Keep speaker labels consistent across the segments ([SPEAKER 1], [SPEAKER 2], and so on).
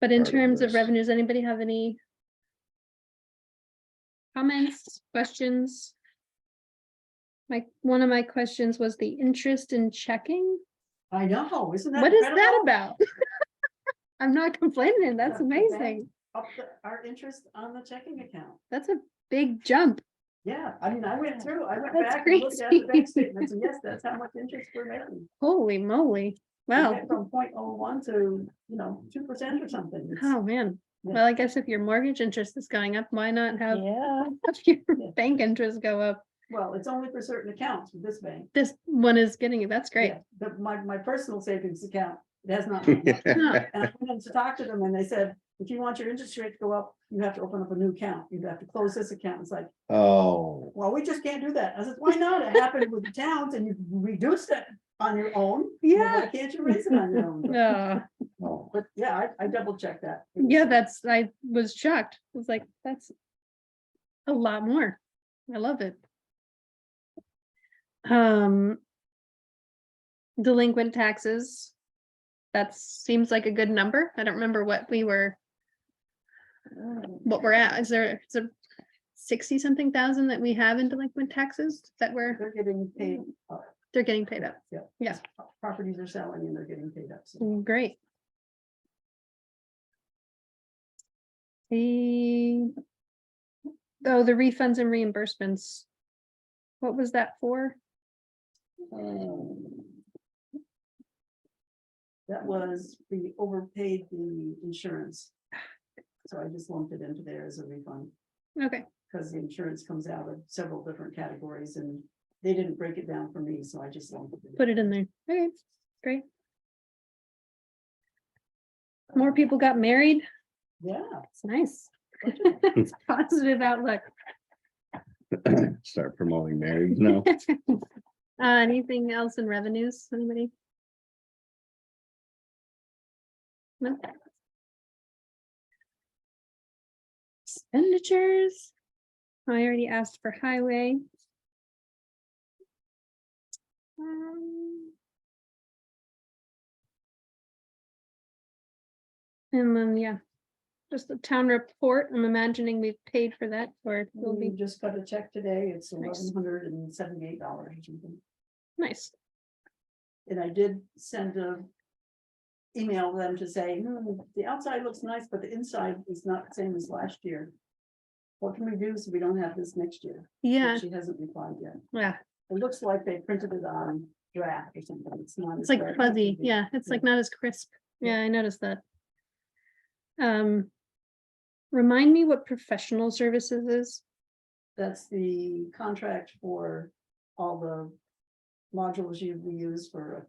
[SPEAKER 1] But in
[SPEAKER 2] Part of
[SPEAKER 1] terms of
[SPEAKER 2] this.
[SPEAKER 1] revenues, anybody have any? Comments, questions? My, one of my questions was the interest in checking.
[SPEAKER 3] I know, isn't that?
[SPEAKER 1] What is that
[SPEAKER 3] incredible?
[SPEAKER 1] about? I'm not complaining. That's
[SPEAKER 3] That's
[SPEAKER 1] amazing.
[SPEAKER 3] Up the- Our interest on the checking account.
[SPEAKER 1] That's a big jump.
[SPEAKER 3] Yeah, I mean, I went through, I went
[SPEAKER 1] That's
[SPEAKER 3] back and looked at the
[SPEAKER 1] crazy.
[SPEAKER 3] bank statements, and yes, that's how much interest we're making.
[SPEAKER 1] Holy moly.
[SPEAKER 3] We
[SPEAKER 1] Wow.
[SPEAKER 3] went From 0.01 to, you know, two percent or something. It's-
[SPEAKER 1] Oh, man.
[SPEAKER 3] Yeah.
[SPEAKER 1] Well, I guess if your mortgage interest is going up, why not have
[SPEAKER 4] Yeah.
[SPEAKER 1] have your
[SPEAKER 3] Yeah.
[SPEAKER 1] bank interest go up?
[SPEAKER 3] Well, it's only for certain accounts with this bank.
[SPEAKER 1] This one is getting it. That's great.
[SPEAKER 3] Yeah, But my, my personal savings account, it has not. gone up.
[SPEAKER 1] Huh.
[SPEAKER 2] Right.
[SPEAKER 3] And I went in to talk to them and they said, if you want your interest rate to go up, you have to open up a new account. You have to close this account. It's like,
[SPEAKER 2] Oh,
[SPEAKER 3] well, we just can't do that. I said, why not? It happened with the towns and you reduced it on your own. Well, why Can't you raise it on your own? But-
[SPEAKER 1] Oh,
[SPEAKER 2] oh,
[SPEAKER 3] But yeah, I, I double checked that. It was-
[SPEAKER 1] yeah, that's, I was shocked. I was like, that's a lot more. I love it. Um, delinquent taxes. That seems like a good number. I don't remember what we were, what we're at. Is there, it's a sixty something thousand that we have in delinquent taxes that we're,
[SPEAKER 3] They're getting paid,
[SPEAKER 1] they're getting mm, paid up.
[SPEAKER 3] yeah.
[SPEAKER 1] Yeah.
[SPEAKER 3] Properties are selling and they're getting paid up. So
[SPEAKER 1] Mm, Great. The, oh, the refunds and reimbursements. What was that for?
[SPEAKER 3] um, That was, we overpaid the insurance. So I just lumped it into there as a refund.
[SPEAKER 1] Okay,
[SPEAKER 3] because the insurance comes out of several different categories and they didn't break it down for me, so I just lumped it.
[SPEAKER 1] put it in there. Okay, great. More people got married.
[SPEAKER 3] in. Yeah.
[SPEAKER 1] It's nice. It's Positive outlook.
[SPEAKER 2] start promoting marriage now.
[SPEAKER 1] Uh, anything else in revenues, anybody? No. Expenditures. I already asked for highway. Um, And then, yeah, just the town report. I'm imagining we've paid for that or we'll
[SPEAKER 3] We
[SPEAKER 1] be
[SPEAKER 3] just got a check today. It's
[SPEAKER 1] Mm. Nice.
[SPEAKER 3] eleven hundred and seventy-eight dollars or something.
[SPEAKER 1] nice.
[SPEAKER 3] And I did send a email them to say, "Hmm, the outside looks nice, but the inside is not the same as last year. What can we do so we don't have this next year? But
[SPEAKER 1] Yeah,
[SPEAKER 3] She hasn't replied yet.
[SPEAKER 1] yeah.
[SPEAKER 3] It looks like they printed it on draft or something. It's not.
[SPEAKER 1] It's
[SPEAKER 3] as
[SPEAKER 1] like
[SPEAKER 3] bright.
[SPEAKER 1] fuzzy, yeah, it's like not as crisp,
[SPEAKER 3] Yeah.
[SPEAKER 1] yeah, I noticed that. Um. Remind me what professional services is,
[SPEAKER 3] That's the contract for all the modules you we use for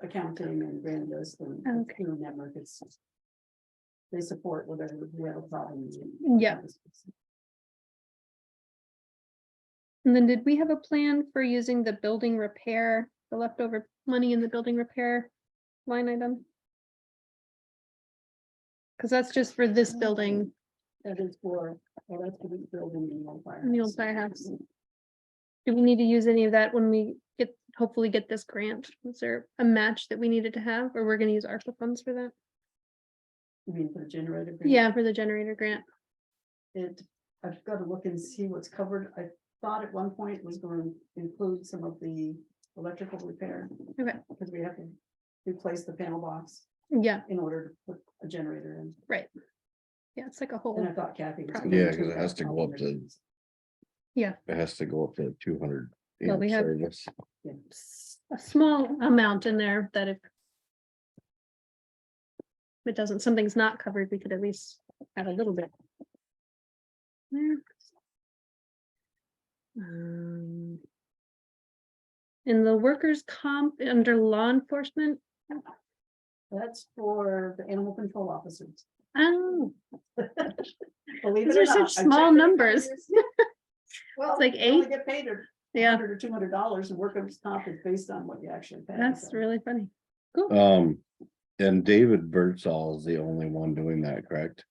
[SPEAKER 3] accounting and grand list and and
[SPEAKER 1] Okay.
[SPEAKER 3] through network. It's they support whatever we have problems.
[SPEAKER 1] Yeah. and then did we have a plan for using the building repair, the leftover money in the building repair line item? Cause that's just for this building,
[SPEAKER 3] That is for, well, that's for the building in the old firehouse.
[SPEAKER 1] In the old firehouse. do we need to use any of that when we get, hopefully get this grant? Was there a match that we needed to have, or we're gonna use ARPA funds for that?
[SPEAKER 3] You mean for the generator? green?
[SPEAKER 1] Yeah, for the generator grant,
[SPEAKER 3] It, I've got to look and see what's covered. I thought at one point it was going to include some of the electrical repair.
[SPEAKER 1] Okay.
[SPEAKER 3] Because we have to replace the panel box.
[SPEAKER 1] yeah,
[SPEAKER 3] in order to put a generator in.
[SPEAKER 1] yeah, it's like a whole.
[SPEAKER 3] And I thought Kathy. was gonna
[SPEAKER 2] Yeah,
[SPEAKER 3] do
[SPEAKER 2] 'cause it has
[SPEAKER 3] that
[SPEAKER 2] to go up to-
[SPEAKER 3] alternatives.
[SPEAKER 2] It has to go up to two hundred.
[SPEAKER 1] Well, we have- s- a small amount in there that if if it doesn't, something's not covered, we could at least add a little bit. There. Um, In the workers' comp, under law enforcement,
[SPEAKER 3] That's for the animal control officers.
[SPEAKER 1] oh,
[SPEAKER 3] Believe
[SPEAKER 1] These
[SPEAKER 3] it or
[SPEAKER 1] are such
[SPEAKER 3] not, I checked
[SPEAKER 1] small
[SPEAKER 3] it.
[SPEAKER 1] numbers.
[SPEAKER 3] Well,
[SPEAKER 1] like
[SPEAKER 3] like eight.
[SPEAKER 1] eight.
[SPEAKER 3] Get paid a
[SPEAKER 1] yeah,
[SPEAKER 3] hundred or two hundred dollars and workers' comp is based on what you actually pay.
[SPEAKER 1] that's
[SPEAKER 3] so.
[SPEAKER 1] really funny. Cool.
[SPEAKER 2] Um, and David Birdsall is the only one doing that, correct?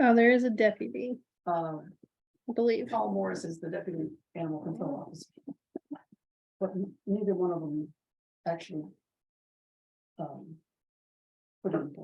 [SPEAKER 1] Oh, there is a deputy,
[SPEAKER 3] Uh,
[SPEAKER 1] I believe.
[SPEAKER 3] Paul Morris is the deputy animal control officer. But n- neither one of them actually. Um. Put on.